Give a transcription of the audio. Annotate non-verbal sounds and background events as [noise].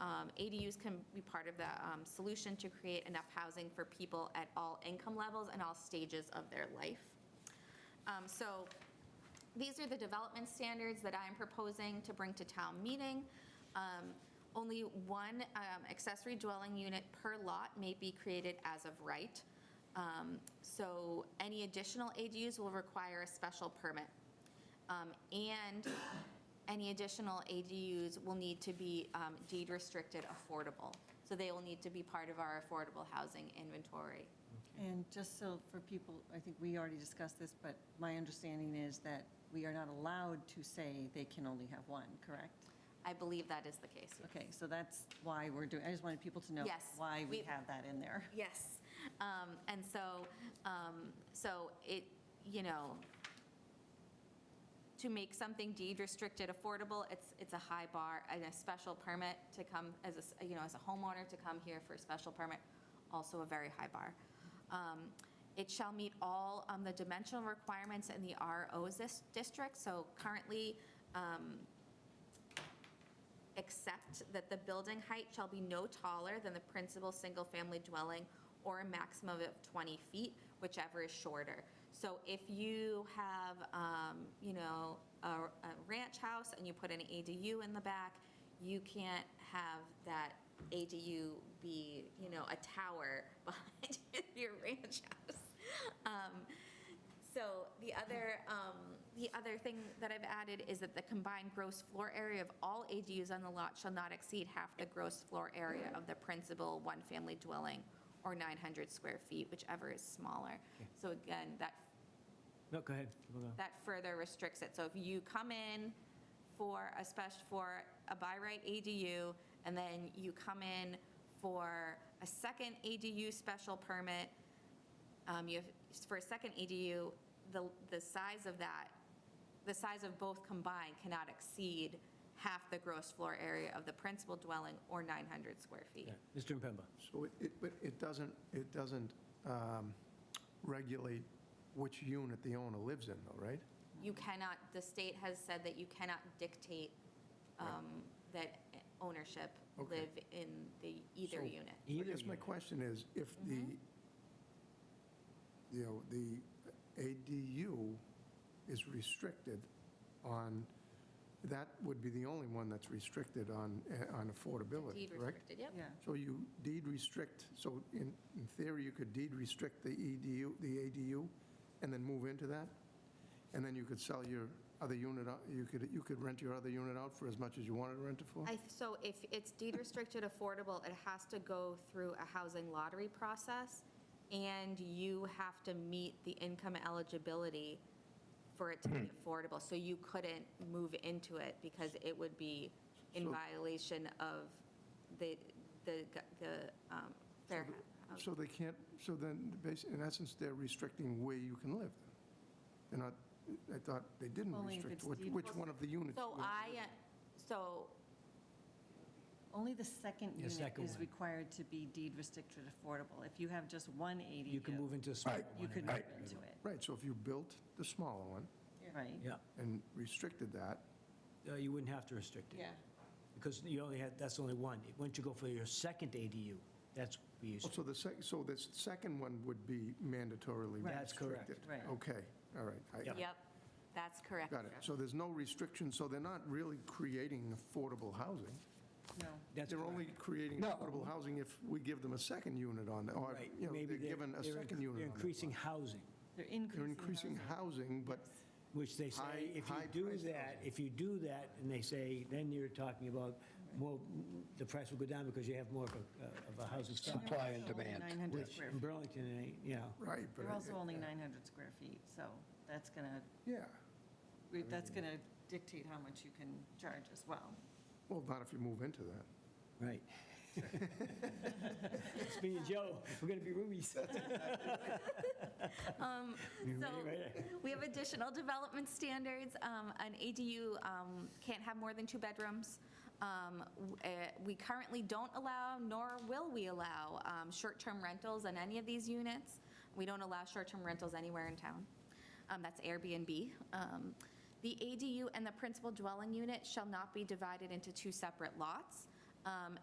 um, ADUs can be part of the um, solution to create enough housing for people at all income levels and all stages of their life. Um, So these are the development standards that I'm proposing to bring to town meeting. Um, Only one um, accessory dwelling unit per lot may be created as of right. Um, So any additional ADUs will require a special permit. Um, And any additional ADUs will need to be um, deed restricted affordable. So they will need to be part of our affordable housing inventory. And just so for people, I think we already discussed this, but my understanding is that we are not allowed to say they can only have one, correct? I believe that is the case. Okay, so that's why we're doing, I just wanted people to know Yes, why we we- have that in there. Yes. Um, And so, um, so it, you know, to make something deed restricted affordable, it's, it's a high bar and a special permit to come as a, s- you know, as a homeowner to come here for a special permit, also a very high bar. Um, It shall meet all um, the dimensional requirements in the RO dis- district. So currently, um, except that the building height shall be no taller than the principal single-family dwelling or a maximum of 20 feet, whichever is shorter. So if you have, um, you know, a a ranch house and you put an ADU in the back, you can't have that ADU be, you know, a tower [laughs] behind your ranch house. Um, so the other, um, the other thing that I've added is that the combined gross floor area of all ADUs on the lot shall not exceed half the gross floor area of the principal one-family dwelling, or 900 square feet, whichever is smaller. So again, that, No, go ahead. We'll go. that further restricts it. So if you come in for a special, for a by right ADU, and then you come in for a second ADU special permit, um, you have, for a second ADU, the, the size of that, the size of both combined cannot exceed half the gross floor area of the principal dwelling or 900 square feet. Yeah. Mr. Impemba. So it- it, but it doesn't, it doesn't um, regulate which unit the owner lives in, though, right? You cannot, the state has said that you cannot dictate um, that ownership Okay. live in the either So- unit. I guess my unit. question is, if the, you know, the ADU is restricted on, that would be the only one that's restricted on, eh, on affordability, Deed correct? restricted, yep. Yeah, So you deed restrict, so in in theory, you could deed restrict the EDU, the ADU, and then move into that? And then you could sell your other unit, out. you could, you could rent your other unit out for as much as you wanted to rent it for? I, so if it's deed restricted affordable, it has to go through a housing lottery process, and you have to meet the income eligibility for it to be Hmm. affordable. So you couldn't move into it because it would be in So- violation of the, the, the, um, fair Oh. housing. So they can't, so then, basi- in essence, they're restricting where you can live. They're not, I thought they didn't Only if restrict it's which deed which one of the units. So you- I, uh, so only the second The unit second is one. required to be deed restricted affordable. If you have just one ADU. You can move into a smaller one. You could and move that- into it, Right, so if you built the smaller one right? Yeah, and restricted that, Uh, you wouldn't have to restrict it. Because you only had, that's only one. Once you go for your second ADU, that's we used Oh, So the sec, so this second one would be mandatorily restricted? Right. That's correct. Right. Okay, all right. I- Yep. Yep, that's correct. Got it. So there's no restriction, so they're not really creating affordable housing. No, That's They're only correct. creating affordable housing if we give them a second unit on, or, Right. you know, Maybe they're given a they're second inc- unit on. They're that increasing lot. housing, they're They're increasing increasing housing. housing, but, which they High- say, if you do high-priced that, if you do that, and they say, then you're talking about more, the price will go down because you have more of a, uh, of a housing stock. Supply and They're also only demand. 900 Which square in feet. Burlington, it ain't, you know, right, but. They're I- also only 900 square feet, so that's going to, Yeah. that's going to dictate how much you can charge as well. Well, not if you move into that. right. [laughs] It's me and Joe, we're going to be roomies. So Right. we have additional development standards. Um, An ADU um, can't have more than two bedrooms. Um, w- eh, We currently don't allow, nor will we allow, um, short-term rentals in any of these units. We don't allow short-term rentals anywhere in town. Um, That's Airbnb. Um, The ADU and the principal dwelling unit shall not be divided into two separate lots. Um,